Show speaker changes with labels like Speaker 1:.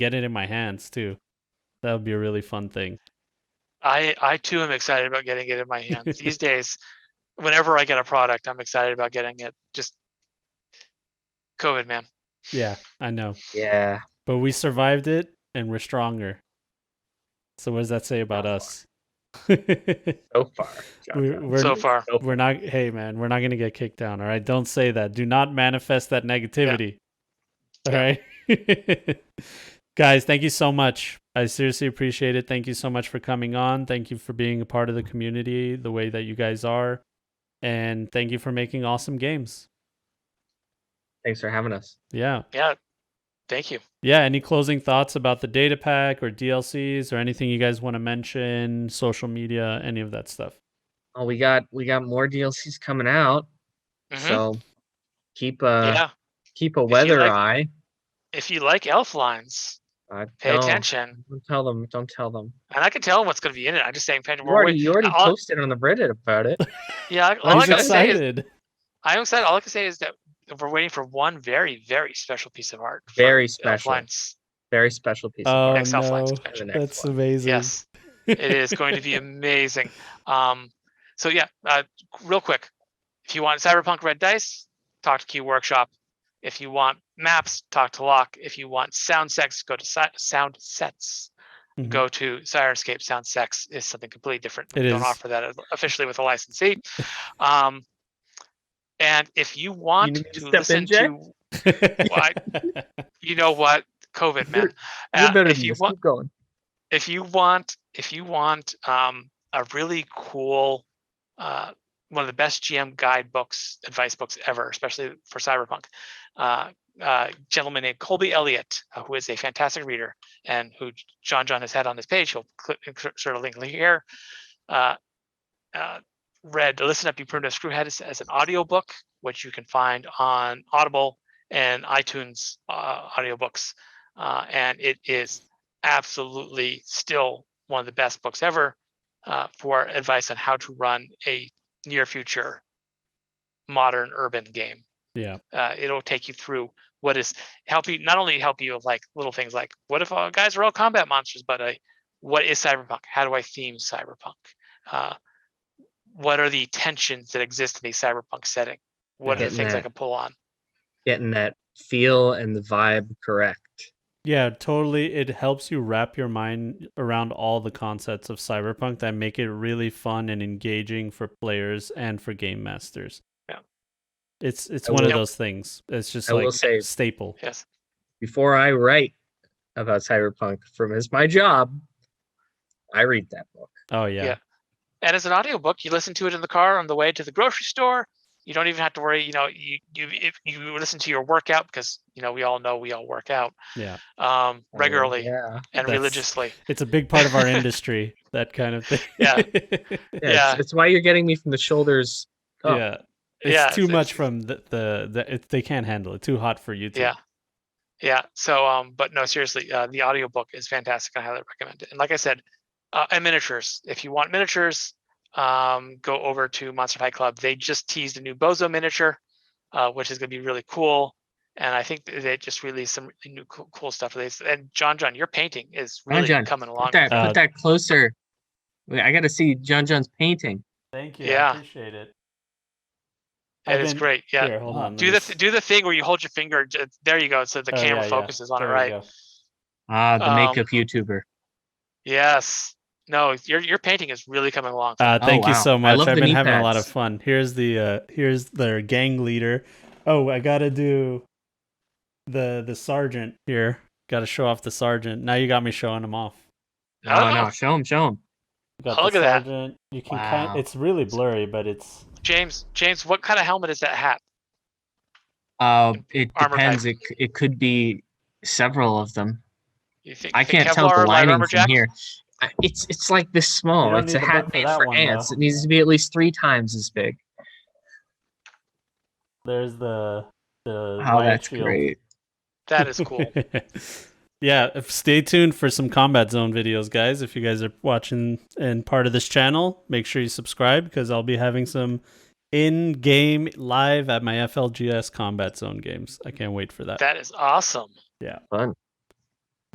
Speaker 1: get it in my hands too. That would be a really fun thing.
Speaker 2: I I too am excited about getting it in my hands these days. Whenever I get a product, I'm excited about getting it. Just COVID, man.
Speaker 1: Yeah, I know.
Speaker 3: Yeah.
Speaker 1: But we survived it and we're stronger. So what does that say about
Speaker 3: Oh.
Speaker 1: us? we're,
Speaker 3: So far. John John.
Speaker 1: we're,
Speaker 2: so far, oh.
Speaker 1: we're not hey man, we're not going to get kicked down, all right? Don't say that. Do not manifest that negativity. All right? Guys, thank you so much. I seriously appreciate it. Thank you so much for coming on. Thank you for being a part of the community the way that you guys are. And thank you for making awesome games.
Speaker 3: Thanks for having us.
Speaker 1: Yeah.
Speaker 2: yeah. Thank you.
Speaker 1: yeah any closing thoughts about the data pack or dlcs or anything you guys want to mention social media any of that stuff
Speaker 3: Oh, we got we got more DLCs coming out.
Speaker 2: Mhm.
Speaker 3: So uh, keep a
Speaker 2: yeah.
Speaker 3: keep a
Speaker 2: you
Speaker 3: weather
Speaker 2: like-
Speaker 3: eye.
Speaker 2: If you like elf lines,
Speaker 3: Uh,
Speaker 2: pay
Speaker 3: no,
Speaker 2: attention.
Speaker 3: Don't tell them. Don't tell them.
Speaker 2: And I can tell them what's going to be in it. I'm just saying, pay
Speaker 3: You
Speaker 2: attention. We're
Speaker 3: already,
Speaker 2: wait-
Speaker 3: you already
Speaker 2: all-
Speaker 3: posted on the Reddit about it.
Speaker 2: Yeah. I- All
Speaker 1: i'm
Speaker 2: I gotta say is,
Speaker 1: excited
Speaker 2: I'm excited. All I can say is that we're waiting for one very, very special piece of art. from
Speaker 3: Very
Speaker 2: Elf
Speaker 3: special.
Speaker 2: Lines.
Speaker 3: Very special piece. of
Speaker 1: oh
Speaker 2: Next Elf
Speaker 1: no
Speaker 2: Lines
Speaker 3: art for
Speaker 2: expansion.
Speaker 3: the next
Speaker 1: that's
Speaker 3: one.
Speaker 1: amazing
Speaker 2: Yes. it is going to be amazing. Um, so yeah, uh, real quick, if you want Cyberpunk Red Dice, talk to Q Workshop. If you want maps, talk to Locke. If you want sound sex, go to si- Sound Sets.
Speaker 3: Mm-hmm.
Speaker 1: Mhm.
Speaker 2: Go to Sirenscape. Sound Sex is something completely different.
Speaker 1: It
Speaker 2: we don't
Speaker 1: is.
Speaker 2: offer that as- officially with a licensee. Um, and if you want
Speaker 3: need me to
Speaker 2: to
Speaker 3: step in,
Speaker 2: listen
Speaker 3: Jack?
Speaker 2: to, why- you know what, COVID man.
Speaker 3: You're
Speaker 2: Uh,
Speaker 3: better
Speaker 2: if
Speaker 3: than
Speaker 2: you
Speaker 3: this.
Speaker 2: want,
Speaker 3: Keep going.
Speaker 2: if you want if you want um, a really cool uh, one of the best gm guidebooks advice books ever especially for cyberpunk uh, uh, gentleman named colby elliott uh, who is a fantastic reader and who J- john john has had on his page he'll cl- insert a link here uh, uh, read listen up you primitive screwhead as, as an audiobook which you can find on audible and itunes uh, audiobooks uh, and it is absolutely still one of the best books ever uh, for advice on how to run a near future modern urban game.
Speaker 1: yeah
Speaker 2: Uh, it'll take you through what is help you not only help you with like little things like what if all guys are all combat monsters, but uh, what is cyberpunk? How do I theme cyberpunk? Uh, what are the tensions that exist in the cyberpunk setting? What
Speaker 1: Yeah.
Speaker 2: are the things I
Speaker 3: Getting
Speaker 2: can pull on?
Speaker 3: Getting that feel and the vibe correct.
Speaker 1: yeah totally it helps you wrap your mind around all the concepts of cyberpunk that make it really fun and engaging for players and for game masters
Speaker 2: Yeah.
Speaker 1: it's it's
Speaker 3: I
Speaker 1: one of
Speaker 2: will-
Speaker 1: those things it's just
Speaker 3: I will
Speaker 1: like
Speaker 3: say-
Speaker 1: staple
Speaker 2: Yes.
Speaker 3: Before I write about cyberpunk from is my job, I read that book.
Speaker 1: oh yeah,
Speaker 2: Yeah. and as an audiobook you listen to it in the car on the way to the grocery store you don't even have to worry you know you you if you listen to your workout because you know we all know we all work out
Speaker 1: Yeah.
Speaker 2: um
Speaker 3: Oh,
Speaker 2: regularly
Speaker 3: Yeah.
Speaker 2: and
Speaker 1: That's-
Speaker 2: religiously
Speaker 1: it's a big part of our industry that kind of thing
Speaker 2: Yeah.
Speaker 3: Yeah, it's-
Speaker 2: Yeah.
Speaker 3: It's why you're getting me from the shoulders. up.
Speaker 1: yeah it's
Speaker 2: Oh, yeah
Speaker 1: too
Speaker 2: it's-
Speaker 1: much from the the, the it, they can't handle it too hot for you
Speaker 2: yeah yeah so um but no seriously uh, the audiobook is fantastic i highly recommend it and like i said uh, and miniatures if you want miniatures um go over to monster high club they just teased a new bozo miniature uh, which is going to be really cool and i think th- they just released some really new cool, cool stuff they, s- and john john your painting is
Speaker 3: John
Speaker 2: really
Speaker 3: John,
Speaker 2: coming along
Speaker 3: Put that,
Speaker 1: Uh,
Speaker 3: put that closer. Wait, I got to see John John's painting.
Speaker 1: thank
Speaker 2: you, I Yeah.
Speaker 1: appreciate it
Speaker 2: it is great yeah
Speaker 1: hold on
Speaker 2: do the th- do the thing where you hold your finger j- there you go so the
Speaker 1: Oh,
Speaker 2: camera
Speaker 1: yeah, yeah.
Speaker 2: focuses on it right
Speaker 3: Ah, the
Speaker 2: Um,
Speaker 3: makeup YouTuber.
Speaker 2: yes no your your painting is really coming along
Speaker 1: uh,
Speaker 3: Oh,
Speaker 1: thank you
Speaker 3: wow. I
Speaker 1: so much
Speaker 3: love
Speaker 1: i've
Speaker 3: the
Speaker 1: been
Speaker 3: knee
Speaker 1: having a lot of
Speaker 3: pads.
Speaker 1: fun here's the uh here's their gang leader oh i gotta do the the sergeant here gotta show off the sergeant now you got me showing him off
Speaker 3: No,
Speaker 2: Oh.
Speaker 3: no, show him, show him.
Speaker 1: got the
Speaker 2: Oh, look at that.
Speaker 1: sergeant you can
Speaker 3: Wow.
Speaker 1: kind it's really blurry but it's
Speaker 2: james james what kind of helmet is that hat
Speaker 3: Uh, it
Speaker 2: Armor type.
Speaker 3: depends. It, c- it could be several of them.
Speaker 2: You think
Speaker 3: I
Speaker 2: you think
Speaker 3: can't tell
Speaker 2: Kevlar
Speaker 3: the
Speaker 2: or light
Speaker 3: lining
Speaker 2: armor
Speaker 3: from
Speaker 2: jack?
Speaker 3: here. I- It's it's like this small.
Speaker 1: don't
Speaker 3: It's
Speaker 1: need
Speaker 3: a
Speaker 1: the
Speaker 3: hat
Speaker 1: book for
Speaker 3: made
Speaker 1: that
Speaker 3: for
Speaker 1: one,
Speaker 3: ants.
Speaker 1: though.
Speaker 3: It needs to be at least three times as big.
Speaker 1: there's the the
Speaker 3: Oh,
Speaker 1: riot
Speaker 3: that's
Speaker 1: shield.
Speaker 3: great.
Speaker 2: That is cool.
Speaker 1: yeah, if- stay tuned for some Combat Zone videos, guys. If you guys are watching and part of this channel, make sure you subscribe because I'll be having some in game live at my FLGS Combat Zone games. I can't wait for that.
Speaker 2: that is awesome.
Speaker 3: Fun.